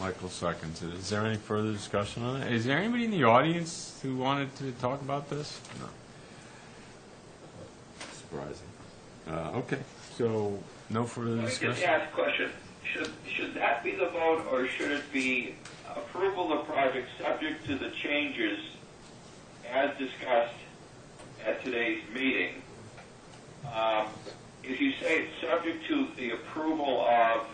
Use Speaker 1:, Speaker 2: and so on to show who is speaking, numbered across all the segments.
Speaker 1: Michael seconds it. Is there any further discussion on it? Is there anybody in the audience who wanted to talk about this? No. Surprising. Uh, Okay, so no further
Speaker 2: Let me just
Speaker 1: discussion?
Speaker 2: ask a question. Should, should that be the vote, or should it be approval of project subject to the changes as discussed at today's meeting? Um, If you say it's subject to the approval of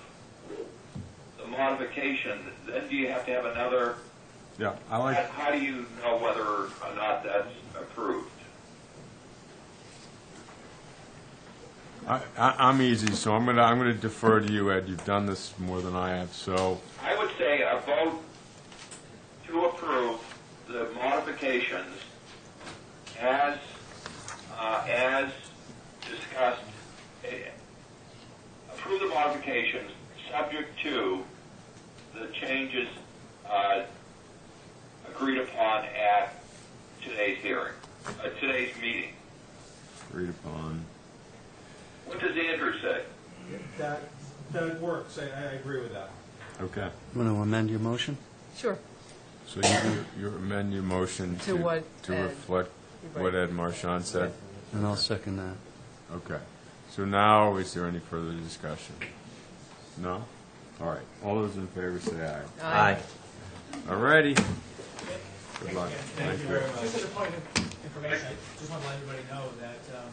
Speaker 2: the modification, then do you have to have another,
Speaker 1: Yeah, I
Speaker 2: how
Speaker 1: like,
Speaker 2: how do you know whether or not that's approved?
Speaker 1: I, I- I'm easy, so I'm gonna, I'm gonna defer to you, Ed. You've done this more than I have, so,
Speaker 2: I would say a vote to approve the modifications as, uh, as discussed. eh, Approve the modifications subject to the changes, uh, agreed upon at today's hearing, uh, today's meeting.
Speaker 1: agreed upon.
Speaker 2: What does Andrew say?
Speaker 3: That, that works, I, I agree with that.
Speaker 1: Okay,
Speaker 4: Want to amend your motion?
Speaker 5: Sure.
Speaker 1: so you, you amend your motion
Speaker 5: To
Speaker 1: to,
Speaker 5: what
Speaker 1: to
Speaker 5: Ed-
Speaker 1: reflect what Ed Marchand said?
Speaker 4: And I'll second that.
Speaker 1: Okay. So now, is there any further discussion? No? All right. All those in favor say aye.
Speaker 5: Aye.
Speaker 1: All righty. Good luck.
Speaker 6: Thank you very much. Just as a point of information, I just want to let everybody know that, um,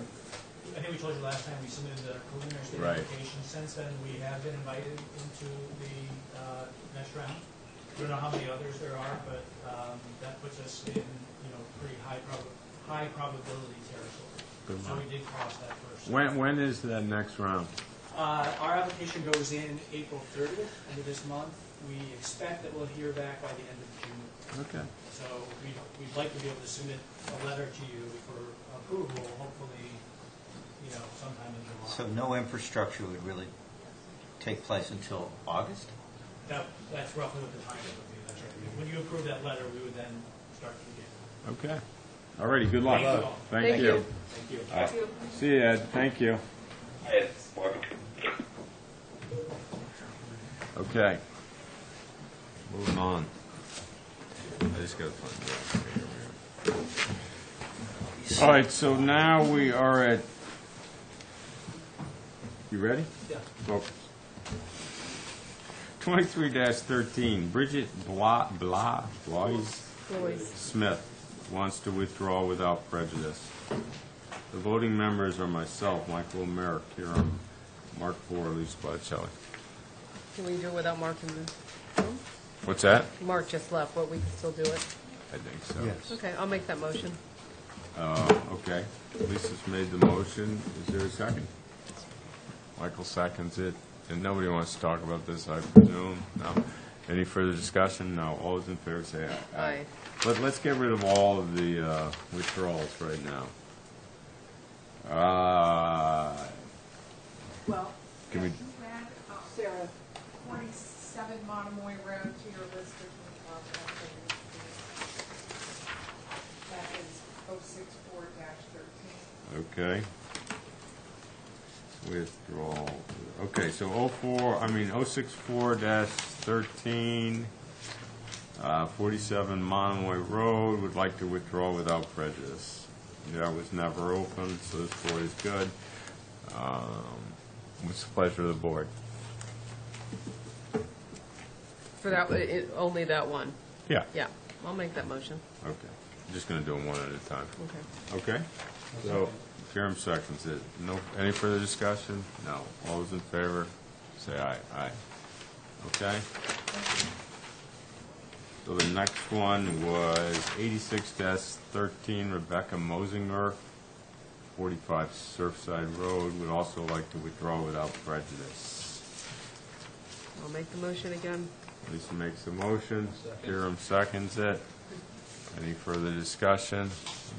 Speaker 6: I think we told you last time we submitted the preliminary state
Speaker 1: Right.
Speaker 6: application. Since then, we have been invited into the uh, next round. I don't know how many others there are, but um, that puts us in, you know, pretty high prob- high probability territory.
Speaker 1: Good
Speaker 6: So
Speaker 1: luck.
Speaker 6: we did cross that first.
Speaker 1: When, when is the next round?
Speaker 6: Uh, Our application goes in April 30th, end of this month. We expect that we'll hear back by the end of June.
Speaker 1: Okay.
Speaker 6: So we'd, we'd like to be able to submit a letter to you for approval, hopefully, you know, sometime in
Speaker 7: So
Speaker 6: July.
Speaker 7: no infrastructure would really take place until August?
Speaker 6: That, that's roughly what the timing would be, that's right. When you approve that letter, we would then start to begin.
Speaker 1: Okay. All righty. Good luck.
Speaker 6: Thank you.
Speaker 1: Thank you.
Speaker 6: Thank you.
Speaker 1: All right. See you, Ed. Thank you.
Speaker 2: I had one.
Speaker 1: Okay. Moving on. I just gotta find it. All right, so now we are at, you ready?
Speaker 6: Yeah.
Speaker 1: Well, 23-13, Bridget Bla, Bla, Bloise
Speaker 5: Boys.
Speaker 1: Smith wants to withdraw without prejudice. The voting members are myself, Michael Merrick, Hiram, Mark Bohr, Lou Botticelli.
Speaker 5: Can we do it without Mark in the room?
Speaker 1: What's that?
Speaker 5: Mark just left, but we can still do it.
Speaker 1: I think so.
Speaker 4: Yes.
Speaker 5: Okay, I'll make that motion.
Speaker 1: Okay, Lisa's made the motion, is there a second? Michael seconds it, and nobody wants to talk about this, I presume, no? Any further discussion? No, all those in favor say aye.
Speaker 5: Aye.
Speaker 1: But let's get rid of all of the uh, withdrawals right now. Uh,
Speaker 8: Well,
Speaker 1: Can we-
Speaker 8: if you add up, Sarah, forty-seven Oh, Monomoy Road to your list of new contractors. That is oh six four dash thirteen.
Speaker 1: Okay. Withdrawal, okay, so oh four, I mean, oh six four dash thirteen, uh, forty-seven Monomoy Road, would like to withdraw without prejudice. That was never open, so this board is good. Um, What's the pleasure of the board?
Speaker 5: For that, it- only that one.
Speaker 1: Yeah.
Speaker 5: Yeah, I'll make that motion.
Speaker 1: Okay, just gonna do them one at a time.
Speaker 5: Okay.
Speaker 1: Okay, so, Jerem seconds it. No, any further discussion? No. All those in favor, say aye. Aye. Okay? So the next one was eighty-six thirteen Rebecca Mosinger, forty-five Surfside Road, would also like to withdraw without prejudice.
Speaker 5: I'll make the motion again.
Speaker 1: Lisa makes the motion, Jerem seconds it. Any further discussion?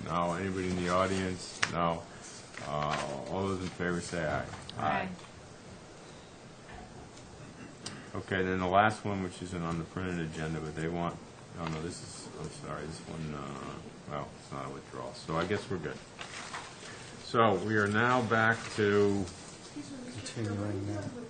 Speaker 1: No, anybody in the audience? No. Uh, All those in favor say aye. Okay, then the last one, which isn't on the printed agenda, but they want, oh no, this is, I'm sorry, this one, uh, well, it's not a withdrawal, so I guess we're good. So we are now back to,
Speaker 8: Excuse me, Mr. Chair, what are
Speaker 4: Continuing
Speaker 8: you
Speaker 4: now.
Speaker 8: doing with